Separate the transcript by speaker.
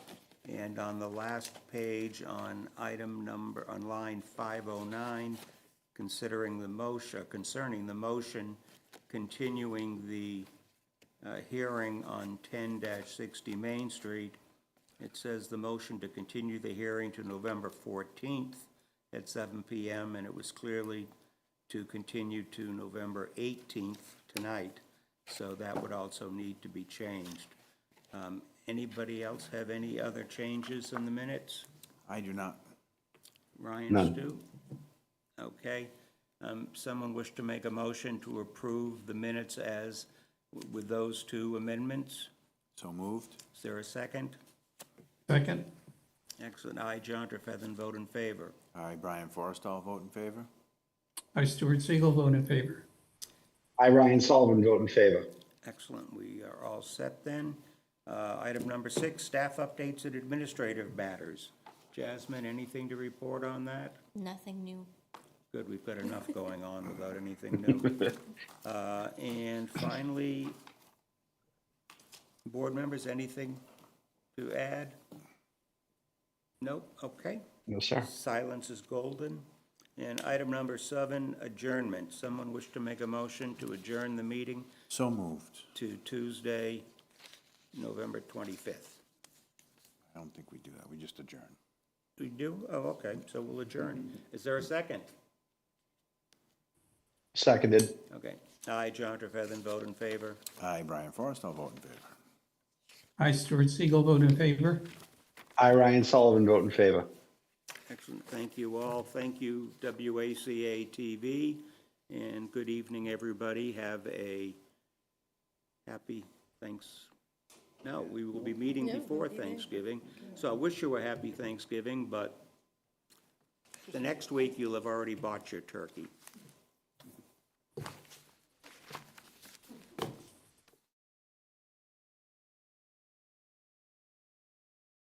Speaker 1: And on the last page, on item number, on line 509, considering the motion, concerning the motion continuing the uh, hearing on 10-60 Main Street, it says the motion to continue the hearing to November 14th at 7 PM, and it was clearly to continue to November 18th tonight, so that would also need to be changed. Um, Anybody else have any other changes in the minutes?
Speaker 2: I do not.
Speaker 1: Ryan, Stu? Okay. Um, Someone wish to make a motion to approve the minutes as, with those two amendments?
Speaker 2: So moved.
Speaker 1: Is there a second?
Speaker 3: Second?
Speaker 1: Excellent. I, John Trefethan, vote in favor.
Speaker 2: I, Brian Forrestall, vote in favor.
Speaker 3: I, Stuart Siegel, vote in favor.
Speaker 4: I, Ryan Sullivan, vote in favor.
Speaker 1: Excellent. We are all set then. Uh, Item number six, staff updates and administrative matters. Jasmine, anything to report on that?
Speaker 5: Nothing new.
Speaker 1: Good, we've got enough going on without anything new. Uh, And finally, board members, anything to add? Nope, okay.
Speaker 4: No, sir.
Speaker 1: Silence is golden. And item number seven, adjournment. Someone wish to make a motion to adjourn the meeting
Speaker 2: So moved.
Speaker 1: to Tuesday, November 25th.
Speaker 2: I don't think we do that. We just adjourn.
Speaker 1: We do? Oh, okay, so we'll adjourn. Is there a second?
Speaker 4: Seconded.
Speaker 1: Okay. I, John Trefethan, vote in favor.
Speaker 2: I, Brian Forrestall, vote in favor.
Speaker 3: I, Stuart Siegel, vote in favor.
Speaker 4: I, Ryan Sullivan, vote in favor.
Speaker 1: Excellent. Thank you all. Thank you, WACA TV. And good evening, everybody. Have a happy thanks. No, we will be meeting before Thanksgiving. So I wish you a happy Thanksgiving, but the next week you'll have already bought your turkey.